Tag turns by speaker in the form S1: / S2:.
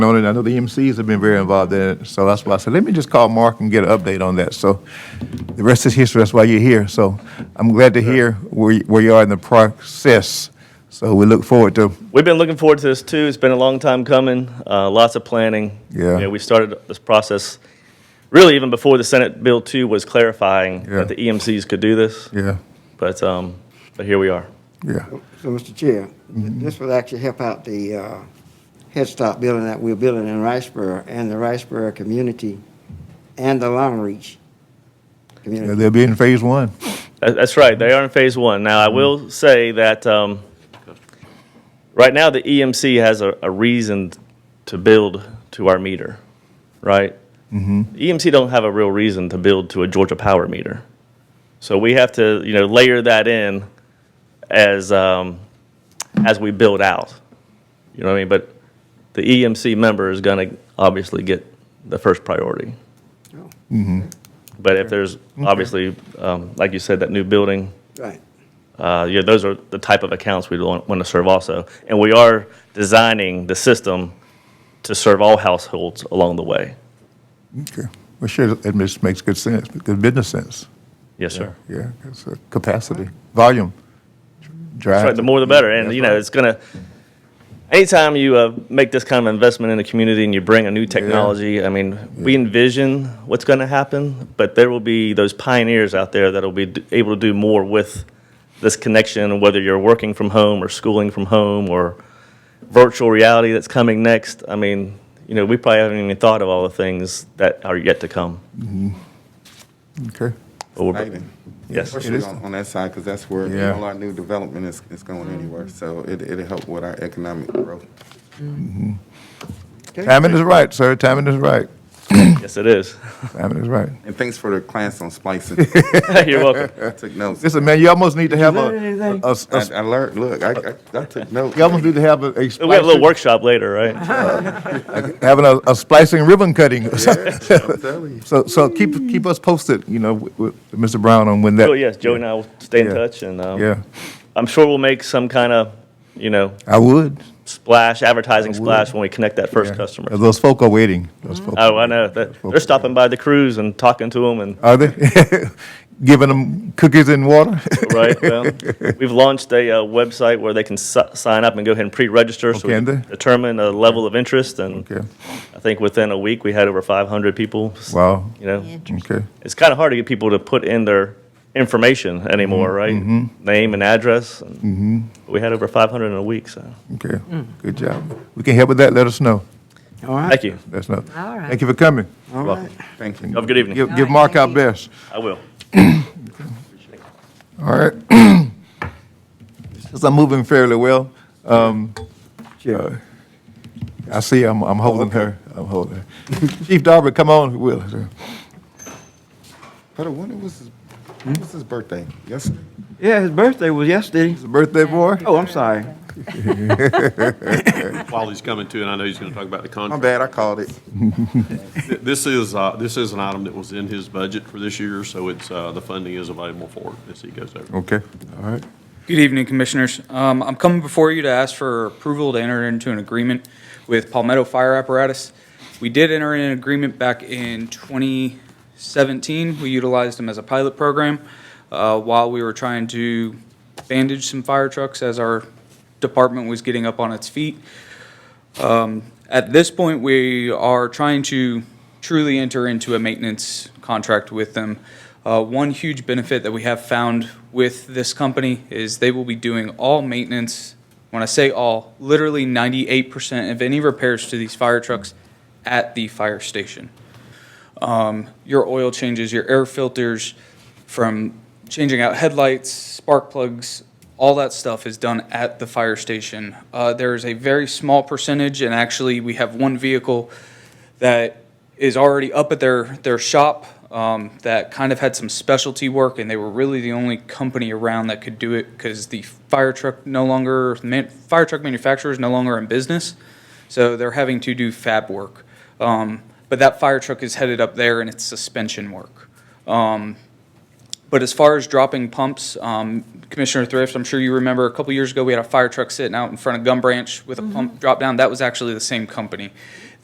S1: on it. I know the EMCs have been very involved in it, so that's why I said, let me just call Mark and get an update on that. So the rest is history, that's why you're here. So I'm glad to hear where, you- where you are in the process. So we look forward to,
S2: We've been looking forward to this too. It's been a long time coming. Uh, lots of planning.
S1: Yeah.
S2: You know, we started this process really even before the Senate Bill 2 was clarifying
S1: Yeah.
S2: that the EMCs could do this.
S1: yeah,
S2: But, um, but here we are.
S1: yeah,
S3: So, Mr. Chair, this would actually help out the uh, Head Start building that we're building in Riceboro and the Riceboro community and the Long Reach
S1: Yeah,
S3: community.
S1: they'll be in phase one.
S2: That- That's right. They are in phase one. Now, I will say that um, right now the EMC has a, a reason to build to our meter, right? Mm-hmm. EMC don't have a real reason to build to a Georgia Power meter, so we have to you know layer that in as um, as we build out. You know what I mean? But the EMC member is going to obviously get the first priority.
S3: Oh,
S2: But if there's obviously, um, like you said, that new building.
S3: Right.
S2: Uh, yeah, those are the type of accounts we want, want to serve also. And we are designing the system to serve all households along the way.
S1: Okay. Well, sure, it just makes good sense, good business sense.
S2: Yes, sir.
S1: Yeah, it's uh, capacity, volume, drive.
S2: That's right. The more the better. And,
S1: That's
S2: you know,
S1: right.
S2: it's going to, anytime you uh, make this kind of investment in the community and you bring a new technology, I mean, we envision what's going to happen, but there will be those pioneers out there that'll be d- able to do more with this connection, whether you're working from home or schooling from home or virtual reality that's coming next. I mean, you know, we probably haven't even thought of all the things that are yet to come.
S1: Okay.
S2: But we're-
S4: Exciting.
S2: Yes.
S1: It is.
S4: Especially on, on that side, because that's where
S1: Yeah.
S4: all our new development is, is going anywhere. So it, it'll help with our economic growth.
S1: Timing is right, sir, timing is right.
S2: Yes, it is.
S1: Timing is right.
S4: And thanks for the class on splicing.
S2: You're welcome.
S4: I took notes.
S1: Listen, man, you almost need to have a,
S3: learn anything?
S1: a- a-
S4: I,
S1: a
S4: I learned, look, I, I, I took notes.
S1: You almost need to have a, a splicing,
S2: We have a little workshop later, right?
S1: having a, a splicing ribbon cutting. or something.
S4: I'm telling you.
S1: So, so keep, keep us posted, you know, with, with Mr. Brown on when that.
S2: Oh yes, Joey and I will stay in
S1: Yeah.
S2: touch, and um,
S1: Yeah,
S2: I'm sure we'll make some kind of, you know,
S1: I would.
S2: splash advertising
S1: I would.
S2: splash when we connect that first
S1: Yeah.
S2: customer.
S1: Those folk are waiting. Those folk.
S2: Oh, I know. They-
S1: folk
S2: They're stopping by the cruise and talking to them, and
S1: Are they? Giving them cookies and water?
S2: right. Well, we've launched a uh, website where they can si- sign up and go ahead and pre-register, so
S1: Oh,
S2: we
S1: can
S2: can
S1: they?
S2: determine a level of interest. And
S1: Okay,
S2: I think within a week we had over 500 people. s-
S1: wow,
S2: You know,
S1: okay,
S2: it's kind of hard to get people to put in their information anymore,
S1: Mm-hmm.
S2: right? Name and address. And We had over 500 in a week, so
S1: okay, good job. We can help with that, let us know,
S3: All right.
S2: thank you.
S1: let us know.
S5: All right.
S1: Thank you for coming.
S3: All
S2: Well,
S3: right.
S4: Thank you.
S2: Have a good evening.
S1: Give,
S5: All
S1: give
S5: right,
S1: Mark our
S5: thank you.
S1: best.
S2: I will.
S1: All right. Since I'm moving fairly well, um,
S3: Sure.
S1: uh, I see I'm, I'm holding her. I'm holding her. Chief Darby, come on, Will.
S4: But when was, his- when was his birthday? Yesterday?
S3: Yeah, his birthday was yesterday.
S1: It's a birthday boy.
S3: Oh, I'm sorry.
S6: while he's coming to, and I know he's going to talk about the
S4: My
S6: contract.
S4: bad, I called it.
S6: Th- This is, uh, this is an item that was in his budget for this year, so it's, uh, the funding is available for it as he goes over.
S1: Okay, all right.
S7: Good evening, Commissioners. Um, I'm coming before you to ask for approval to enter into an agreement with Palmetto Fire Apparatus. We did enter in an agreement back in 2017. We utilized them as a pilot program uh, while we were trying to bandage some fire trucks as our department was getting up on its feet. At this point, we are trying to truly enter into a maintenance contract with them. Uh, one huge benefit that we have found with this company is they will be doing all maintenance. When I say all, literally 98% of any repairs to these fire trucks at the fire station Um, your oil changes, your air filters, from changing out headlights, spark plugs, all that stuff is done at the fire station. Uh, there is a very small percentage, and actually, we have one vehicle that is already up at their their shop um, that kind of had some specialty work, and they were really the only company around that could do it because the fire truck no longer man, fire truck manufacturer is no longer in business, so they're having to do fab work. Um, but that fire truck is headed up there, and it's suspension work. Um, but as far as dropping pumps, um, Commissioner Thrift, I'm sure you remember a couple years ago, we had a fire truck sitting out in front of Gum Branch with a pump drop down. That was actually the same company.